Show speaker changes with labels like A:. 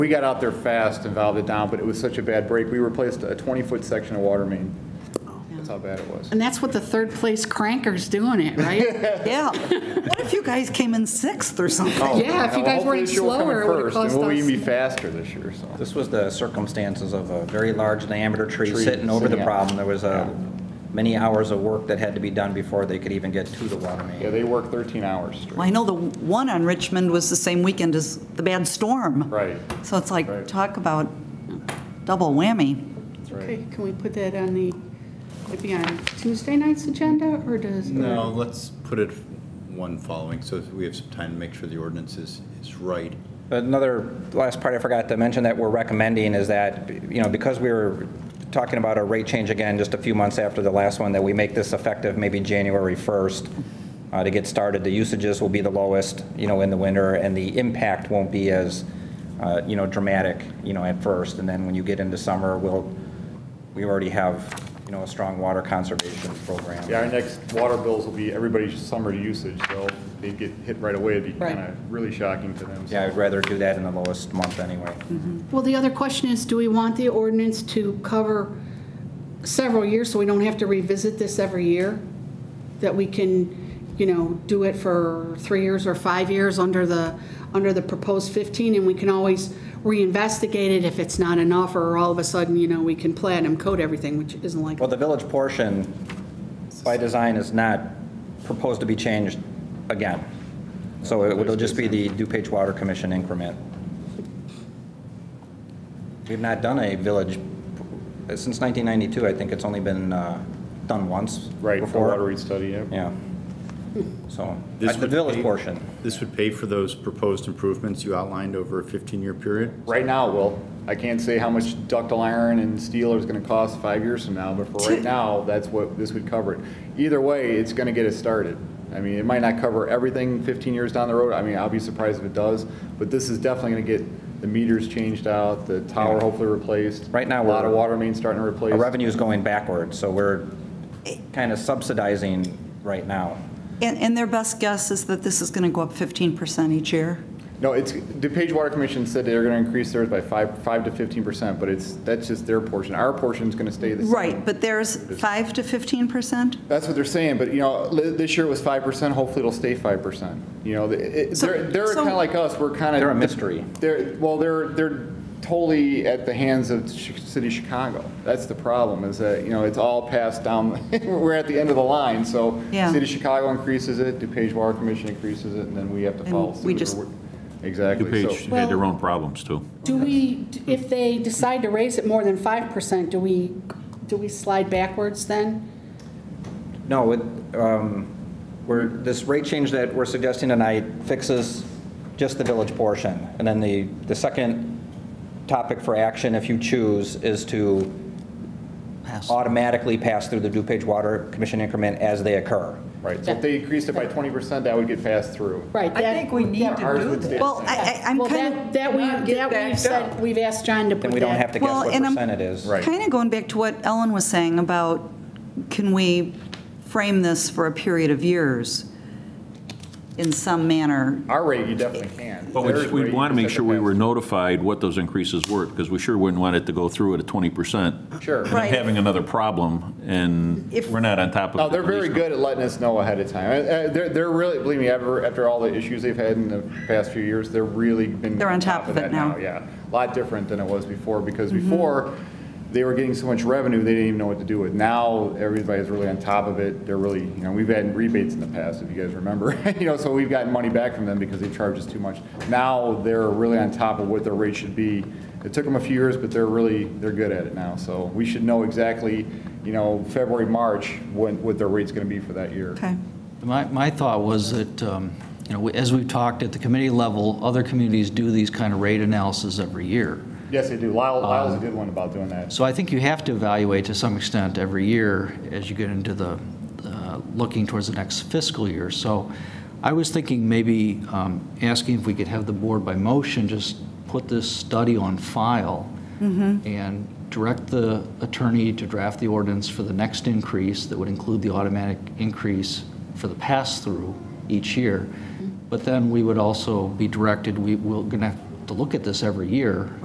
A: We got out there fast and valved it down, but it was such a bad break. We replaced a 20-foot section of water main. That's how bad it was.
B: And that's what the third place cranker's doing it, right?
C: Yeah. What if you guys came in sixth or something?
B: Yeah, if you guys weren't slower, it would've cost
A: And we'll
B: us-
A: even be faster this year, so.
D: This was the circumstances of a very large diameter tree
A: Tree,
D: sitting over the
A: yeah.
D: problem. There was uh, many hours of work that had to be done before they could even get to the water
A: Yeah,
D: main.
A: they work 13 hours straight.
C: Well, I know the one on Richmond was the same weekend as the bad storm.
A: Right.
C: So it's like,
A: Right.
C: talk about double whammy.
A: That's right.
B: Okay, can we put that on the, would be on Tuesday night's agenda, or does?
E: No, let's put it one following, so we have some time to make sure the ordinance is, is right.
D: Another, last part I forgot to mention that we're recommending is that, you know, because we were talking about a rate change again just a few months after the last one, that we make this effective maybe January 1st uh, to get started. The usages will be the lowest, you know, in the winter, and the impact won't be as, uh, you know, dramatic, you know, at first. And then when you get into summer, we'll, we already have, you know, a strong water conservation program.
A: Yeah, our next water bills will be everybody's summer usage, so they'd get hit right away. It'd be
B: Right.
A: kind of really shocking to them. so.
D: Yeah, I'd rather do that in the lowest month anyway.
B: Well, the other question is, do we want the ordinance to cover several years so we don't have to revisit this every year? That we can, you know, do it for three years or five years under the, under the proposed 15, and we can always reinvestigate it if it's not enough, or all of a sudden, you know, we can platinum code everything, which isn't like.
D: Well, the village portion, by design, is not proposed to be changed again. So it- it'll just be the DuPage Water Commission increment. We've not done a village, since 1992, I think it's only been uh, done once.
A: Right, for
D: before.
A: water rate study, yeah.
D: Yeah. So,
E: This
D: that's the
E: would
D: village
E: pay-
D: portion.
E: This would pay for those proposed improvements you outlined over a 15-year period?
A: Right now, Will, I can't say how much ductile iron and steel is going to cost five years from now, but for right now, that's what this would cover it. Either way, it's going to get us started. I mean, it might not cover everything 15 years down the road. I mean, I'll be surprised if it does, but this is definitely going to get the meters changed out, the tower hopefully replaced.
D: Right
A: A
D: now,
A: lot
D: we're-
A: of water mains starting to replace.
D: Our revenue is going backwards, so we're kind of subsidizing right now.
C: And, and their best guess is that this is going to go up 15% each year?
A: No, it's, DePage Water Commission said they're going to increase theirs by five, five to 15%, but it's, that's just their portion. Our portion's going to stay the same.
C: Right, but there's 5 to 15%?
A: That's what they're saying, but you know, li- this year it was five percent. Hopefully, it'll stay five percent. You know, th- it-
C: So-
A: they're they're
C: so-
A: kind of like us. We're kind of
D: They're a mystery.
A: They're well, they're they're totally at the hands of ch- city of Chicago. That's the problem. Is that you know it's all passed down. we're at the end of the line. So
C: Yeah.
A: city of Chicago increases it. DuPage Water Commission increases it, and then we have to
C: And
A: follow.
C: we
A: suit, or
C: just-
A: we're- exactly.
F: DuPage
A: So,
F: had their own problems, too.
B: Do we, if they decide to raise it more than 5%, do we, do we slide backwards then?
D: No, it, um, we're, this rate change that we're suggesting tonight fixes just the village portion. And then the, the second topic for action, if you choose, is to automatically pass through the DuPage Water Commission increment as they occur.
A: right. So if they increased it by twenty percent, that would get passed through.
B: Right.
G: I
B: that-
G: think we need to
A: Ours
G: do
A: would stay
G: that.
A: the
C: Well,
A: same.
C: I, I- I'm
B: Well,
C: kind of.
B: that, that we,
G: Not get
B: that we've
G: backed
B: said,
G: up.
B: we've asked John to put that.
D: Then we don't have to guess
C: Well,
D: what
C: and I'm-
D: percent it is.
A: Right.
C: Kind of going back to what Ellen was saying about, can we frame this for a period of years in some manner?
A: Our rate, you definitely can.
F: But we
A: Theirs
F: just- we'd
A: rate,
F: want to
A: you
F: make
A: just
F: sure
A: have
F: we
A: pass
F: were
A: it.
F: notified what those increases were, because we sure wouldn't want it to go through at a 20%.
A: Sure.
F: And then
C: Right.
F: having another problem, and
C: If-
F: we're not on top of it.
A: No, they're very good at letting us know ahead of time. Uh, uh, They're, they're really, believe me, ever, after all the issues they've had in the past few years, they're really been.
C: They're on top of it
A: that
C: now.
A: Yeah, a lot different than it was before, because before, they were getting so much revenue, they didn't even know what to do with. Now, everybody's really on top of it. They're really, you know, we've had rebates in the past, if you guys remember. You know, so we've gotten money back from them because they charged us too much. Now, they're really on top of what their rate should be. It took them a few years, but they're really, they're good at it now. So we should know exactly, you know, February, March, what, what their rate's going to be for that year.
C: Okay.
H: My, my thought was that, um, you know, as we've talked at the committee level, other communities do these kind of rate analysis every year.
A: Yes, they do. Lyle, Lyle's a good one about doing that.
H: So I think you have to evaluate to some extent every year as you get into the, uh, looking towards the next fiscal year. So I was thinking maybe um, asking if we could have the board by motion just put this study on file and direct the attorney to draft the ordinance for the next increase that would include the automatic increase for the pass-through each year. But then we would also be directed, we, we're going to
I: to look at this every year.